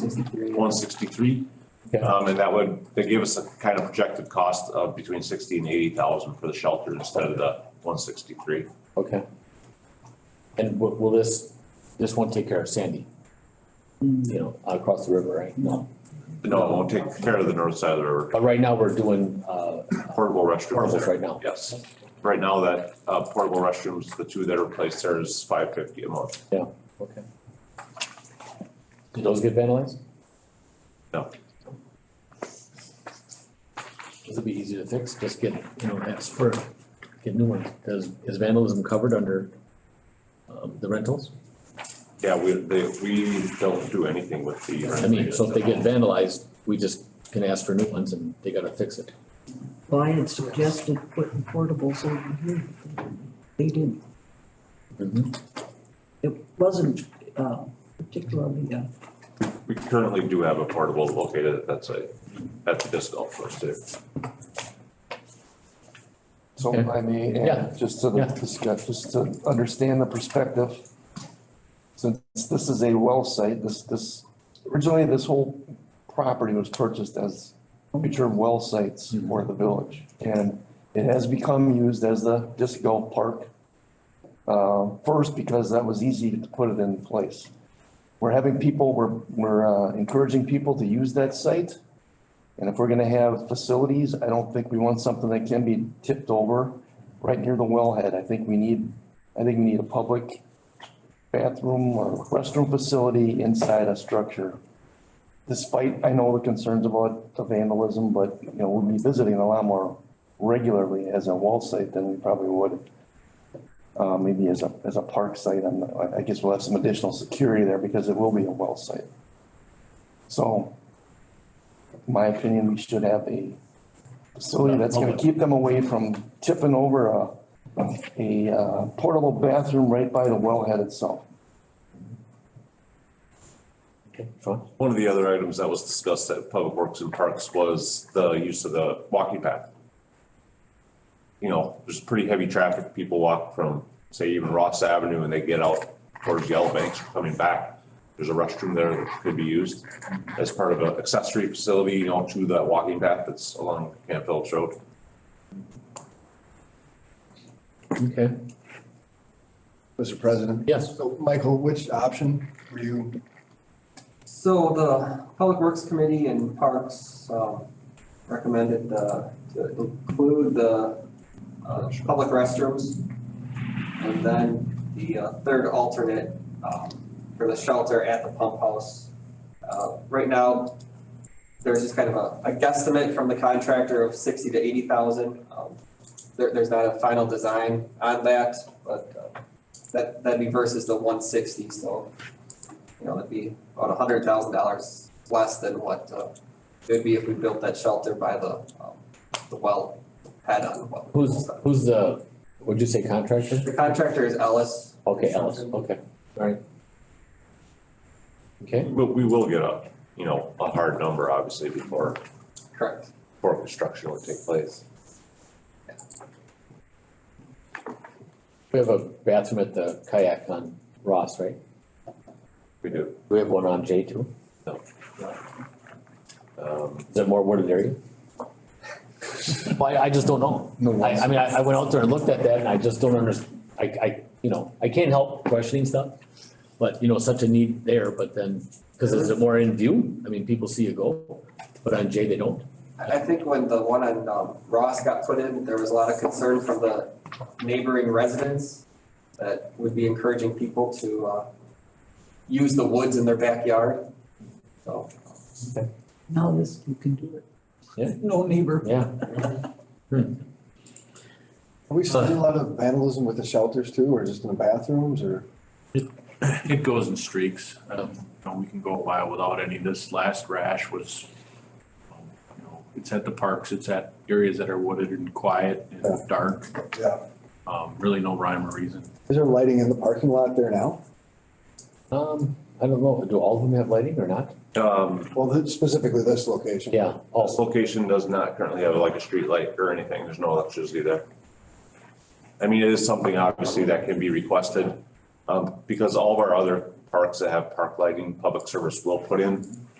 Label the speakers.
Speaker 1: sixty-three.
Speaker 2: one sixty-three.
Speaker 3: Yeah.
Speaker 2: Um, and that would, they gave us a kind of projected cost of between sixty and eighty thousand for the shelter instead of the one sixty-three.
Speaker 3: Okay. And will, will this, this won't take care of Sandy, you know, out across the river, right? Mm. No.
Speaker 2: No, it won't take care of the north side of the river,
Speaker 3: But right now, we're doing, uh,
Speaker 2: portable restrooms
Speaker 3: portables
Speaker 2: there.
Speaker 3: right now.
Speaker 2: Yes. Right now, that, uh, portable restrooms, the two that are placed there is five fifty a month.
Speaker 3: Okay. Did those get vandalized?
Speaker 2: No.
Speaker 3: This would be easy to fix, just get, you know, ask for, get new ones, does, is vandalism covered under um, the rentals?
Speaker 2: Yeah, we, they, we don't do anything with the.
Speaker 3: I mean, so if they get vandalized, we just can ask for new ones and they gotta fix it.
Speaker 1: Well, I had suggested putting portables over here. They didn't,
Speaker 3: Mhm.
Speaker 1: it wasn't, uh, particularly, uh,
Speaker 2: We currently do have a portable located at that site, at the disc golf course too.
Speaker 4: So
Speaker 3: Okay.
Speaker 4: if I may,
Speaker 3: Yeah.
Speaker 4: add just to
Speaker 3: Yeah.
Speaker 4: discuss, just to understand the perspective. Since this is a well site, this, this, originally this whole property was purchased as future well sites
Speaker 3: Mm-hmm.
Speaker 4: for the village. And it has become used as the disc golf park. Uh, first, because that was easy to put it in place. We're having people, we're, we're uh, encouraging people to use that site. And if we're gonna have facilities, I don't think we want something that can be tipped over right near the wellhead. I think we need, I think we need a public bathroom or restroom facility inside a structure. Despite, I know the concerns about the vandalism, but, you know, we'll be visiting a lot more regularly as a wall site than we probably would. Uh, maybe as a, as a park site, I'm, not- I guess we'll have some additional security there because it will be a well site. So in my opinion, we should have a facility that's gonna keep them away from tipping over a, a uh, portable bathroom right by the wellhead itself.
Speaker 3: Okay, Sean?
Speaker 2: One of the other items that was discussed at Public Works and Parks was the use of the walking path. You know, there's pretty heavy traffic. People walk from, say, even Ross Avenue and they get out towards Yellow Banks coming back. There's a restroom there that could be used as part of an accessory facility, you know, to that walking path that's along Camp Phillips Road.
Speaker 3: Okay,
Speaker 5: Mr. President.
Speaker 3: yes,
Speaker 5: So, Michael, which option were you,
Speaker 6: So the Public Works Committee and Parks um, recommended uh, to include the uh, public restrooms. And then the uh, third alternate um, for the shelter at the pump house. Uh, Right now, there's just kind of a a guesstimate from the contractor of sixty to eighty thousand. Um, There, there's not a final design on that, but uh, that, that'd be versus the one sixty, so you know, that'd be about a hundred thousand dollars less than what, uh, it would be if we built that shelter by the, um, the well head on the well.
Speaker 3: who's, who's the, what'd you say contractor?
Speaker 6: The contractor is Ellis.
Speaker 3: Okay, Ellis, okay, alright. Okay,
Speaker 2: But we will get a, you know, a hard number obviously before,
Speaker 6: Correct.
Speaker 2: before construction would take place.
Speaker 3: we have a bathroom at the kayak on Ross, right?
Speaker 2: We do.
Speaker 3: Do we have one on J two?
Speaker 2: Um,
Speaker 3: Is it more wooded area? Well, I, I just don't know.
Speaker 5: No.
Speaker 3: I, I mean, I, I went out there and looked at that and I just don't under, I, I, you know, I can't help questioning stuff. But, you know, such a need there, but then, cause is it more in view? I mean, people see you go, but on J they don't.
Speaker 6: I, I think when the one on, um, Ross got put in, there was a lot of concern from the neighboring residents that would be encouraging people to, uh, use the woods in their backyard. So,
Speaker 1: now this, you can do it.
Speaker 3: Yeah.
Speaker 1: No neighbor.
Speaker 3: Yeah,
Speaker 5: are we seeing a lot of vandalism with the shelters too, or just in the bathrooms, or?
Speaker 7: It goes in streaks. Um, you know, we can go a while without any. This last rash was, um, you know, it's at the parks, it's at areas that are wooded and quiet
Speaker 5: Yeah.
Speaker 7: and dark.
Speaker 5: Yeah.
Speaker 7: Um, really no rhyme or reason.
Speaker 5: Is there lighting in the parking lot there now?
Speaker 3: um, I don't know, do all of them have lighting or not?
Speaker 2: Um,
Speaker 5: Well, th- specifically this location.
Speaker 3: Yeah,
Speaker 2: This
Speaker 3: also,
Speaker 2: location does not currently have like a street light or anything. There's no electricity there. I mean, it is something obviously that can be requested, um, because all of our other parks that have park lighting, public service will put in